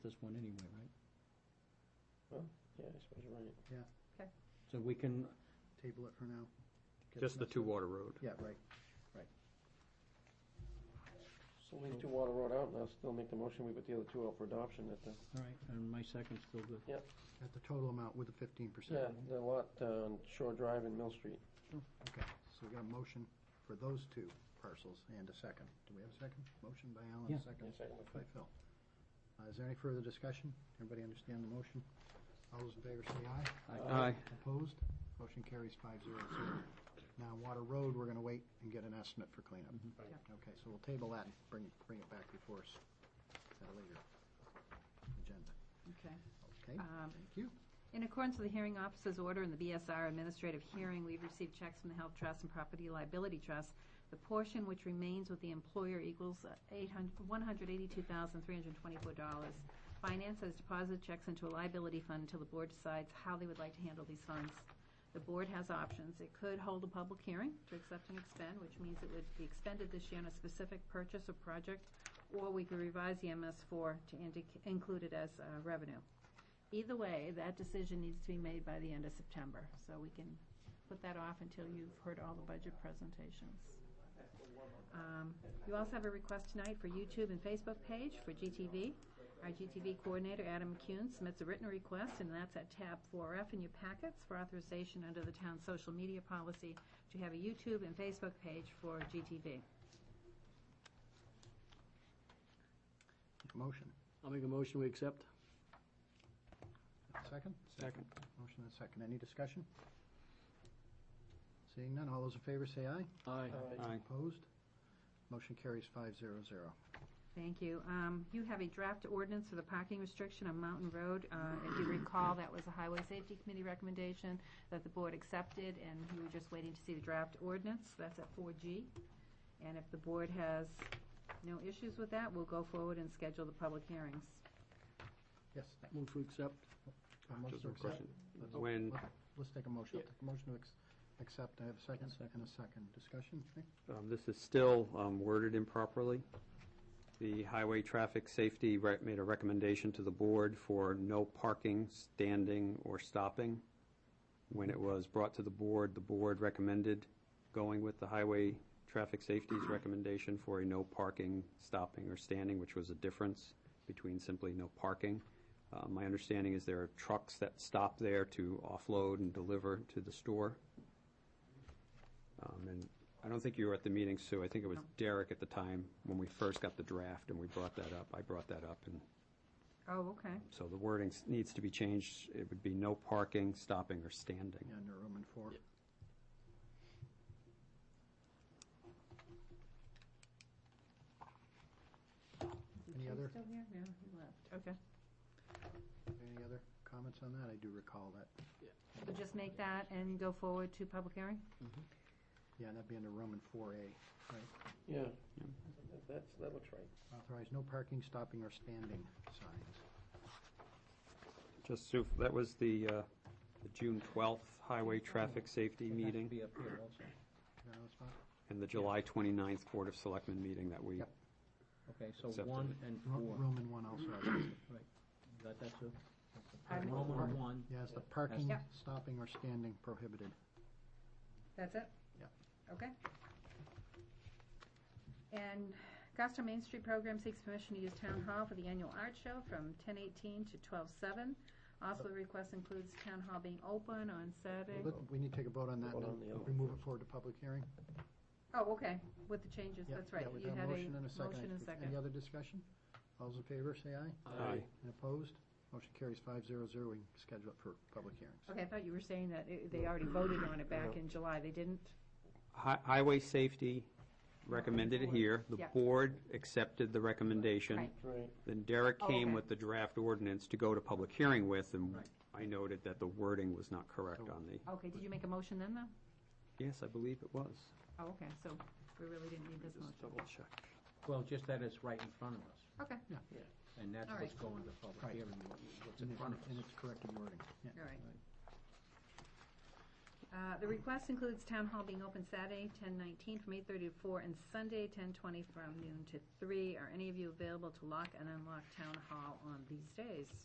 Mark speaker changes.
Speaker 1: this one anyway, right?
Speaker 2: Yeah, I suppose you're right.
Speaker 1: So we can.
Speaker 3: Table it for now. Get
Speaker 4: Just the
Speaker 3: this-
Speaker 4: two water road.
Speaker 3: Yeah, right.
Speaker 2: So leave two water road out, and I'll still make the motion, we put the other two out for adoption at the,
Speaker 1: All right, and my second's still good.
Speaker 3: At the total amount with the fifteen percent.
Speaker 2: yeah, the lot uh, on Shore Drive and Mill Street.
Speaker 3: Okay, so we got a motion for those two parcels and a second. Do we have a second? Motion by Alan,
Speaker 1: Yeah.
Speaker 3: second
Speaker 2: Yes, I can look for
Speaker 3: by
Speaker 2: it.
Speaker 3: Phil. Uh, Is there any further discussion? Everybody understand the motion? All those in favor say aye.
Speaker 4: Aye.
Speaker 3: Opposed? Motion carries five zero zero. Now, Water Road, we're gonna wait and get an estimate for cleanup. Okay, so we'll table that and bring, it- bring it back before us at a later agenda.
Speaker 5: Okay.
Speaker 3: Okay,
Speaker 5: Um,
Speaker 3: thank you.
Speaker 5: In accordance with the hearing officer's order in the BSR administrative hearing, we've received checks from the Health Trust and Property Liability Trust. The portion which remains with the employer equals uh, $182,324. Finance has deposited checks into a liability fund until the board decides how they would like to handle these funds. The board has options. It could hold a public hearing to accept and expend, which means it would be expended this year on a specific purchase or project, or we could revise the MS4 to indic- include it as uh, revenue. Either way, that decision needs to be made by the end of September, so we can put that off until you've heard all the budget presentations. Um, You also have a request tonight for YouTube and Facebook page for GTV. Our GTV coordinator, Adam Kuhn, submits a written request, and that's at tab 4F in your packets for authorization under the town's social media policy to have a YouTube and Facebook page for GTV.
Speaker 3: Motion,
Speaker 4: I'll make a motion, we accept.
Speaker 3: second?
Speaker 4: Second.
Speaker 3: Motion and second. Any discussion? Seeing none, all those in favor say aye.
Speaker 4: Aye.
Speaker 2: Aye.
Speaker 3: Opposed? Motion carries five zero zero.
Speaker 5: Thank you. Um, You have a draft ordinance for the parking restriction on Mountain Road. Uh, If you recall, that was a Highway Safety Committee recommendation that the board accepted, and we were just waiting to see the draft ordinance. That's at 4G. And if the board has no issues with that, we'll go forward and schedule the public hearings.
Speaker 3: Yes.
Speaker 4: Move to accept.
Speaker 3: A motion
Speaker 4: Just
Speaker 3: to
Speaker 4: one
Speaker 3: accept.
Speaker 4: question.
Speaker 3: Let's-
Speaker 4: When,
Speaker 3: let- Let's take a motion. I'll take a motion to ex- accept. I have a second and a second. Discussion? Nick?
Speaker 4: um, this is still um, worded improperly, the Highway Traffic Safety re- made a recommendation to the board for no parking, standing, or stopping. When it was brought to the board, the board recommended going with the Highway Traffic Safety's recommendation for a no parking, stopping, or standing, which was a difference between simply no parking. Uh, My understanding is there are trucks that stop there to offload and deliver to the store. Um, And I don't think you were at the meeting, Sue. I think it was
Speaker 5: No.
Speaker 4: Derek at the time when we first got the draft and we brought that up. I brought that up. And
Speaker 5: Oh, okay.
Speaker 4: so the wording s- needs to be changed. It would be no parking, stopping, or standing.
Speaker 3: Yeah, under Roman four.
Speaker 5: Is
Speaker 3: Any
Speaker 5: Jim
Speaker 3: other?
Speaker 5: Still here? No, he left. Okay.
Speaker 3: Any other comments on that? I do recall that.
Speaker 5: We'll just make that and go forward to public hearing?
Speaker 3: Yeah, that'd be under Roman four A.
Speaker 2: Yeah. That's, that looks right.
Speaker 3: Authorize no parking, stopping, or standing signs.
Speaker 4: Just, Sue, that was the uh, the June 12th Highway Traffic Safety
Speaker 1: It'd have to
Speaker 4: meeting
Speaker 1: Be up here also.
Speaker 3: You got another spot?
Speaker 4: and the July 29th Board of Selectmen meeting that we,
Speaker 3: Yep.
Speaker 1: Okay, so
Speaker 4: Accepted.
Speaker 1: one and
Speaker 3: Ro-
Speaker 1: four.
Speaker 3: Roman one also. has it.
Speaker 1: You Got that too?
Speaker 5: Pardon?
Speaker 1: Roman one.
Speaker 3: Yeah, it's the parking,
Speaker 5: Yeah.
Speaker 3: stopping, or standing prohibited.
Speaker 5: That's it?
Speaker 3: Yeah.
Speaker 5: Okay. And Goffstown Main Street Program seeks permission to use Town Hall for the annual art show from ten eighteen to twelve seven. Also, the request includes Town Hall being open on Saturday.
Speaker 3: Let- We need to take a vote on that, and
Speaker 2: Vote on the
Speaker 3: then
Speaker 2: other
Speaker 3: we
Speaker 2: one
Speaker 3: move it forward to public hearing.
Speaker 5: Oh, okay, with the changes,
Speaker 3: Yeah,
Speaker 5: that's right.
Speaker 3: yeah, we
Speaker 5: You
Speaker 3: got
Speaker 5: had a
Speaker 3: motion and a second.
Speaker 5: Motion and a second.
Speaker 3: Any other discussion? All those in favor, say aye.
Speaker 4: Aye.
Speaker 3: And opposed? Motion carries five zero zero. We can schedule it for public hearings.
Speaker 5: Okay, I thought you were saying that it- they already voted on it back in July, they didn't?
Speaker 4: Hi- Highway Safety recommended it here. The
Speaker 5: Yeah.
Speaker 4: board accepted the recommendation.
Speaker 5: Right.
Speaker 2: Right.
Speaker 4: Then Derek
Speaker 5: Oh,
Speaker 4: came
Speaker 5: okay.
Speaker 4: with the draft ordinance to go to public hearing with, and I noted that the wording was not correct on the,
Speaker 5: Okay, did you make a motion then, though?
Speaker 4: yes, I believe it was.
Speaker 5: Oh, okay, so we really didn't need this
Speaker 4: Just
Speaker 5: motion.
Speaker 4: double check.
Speaker 1: Well, just that it's right in front of us,
Speaker 5: Okay,
Speaker 1: and that's
Speaker 5: All
Speaker 1: what's
Speaker 5: right.
Speaker 1: going to
Speaker 3: Right.
Speaker 1: public hearing, what- what's
Speaker 3: And
Speaker 1: in
Speaker 3: it-
Speaker 1: front of
Speaker 3: And
Speaker 1: us.
Speaker 3: it's corrected wording. Yeah.
Speaker 5: all right. Uh, The request includes town hall being open Saturday, 10:19 from 8:30 to 4, and Sunday, 10:20 from noon to 3. Are any of you available to lock and unlock town hall on these days?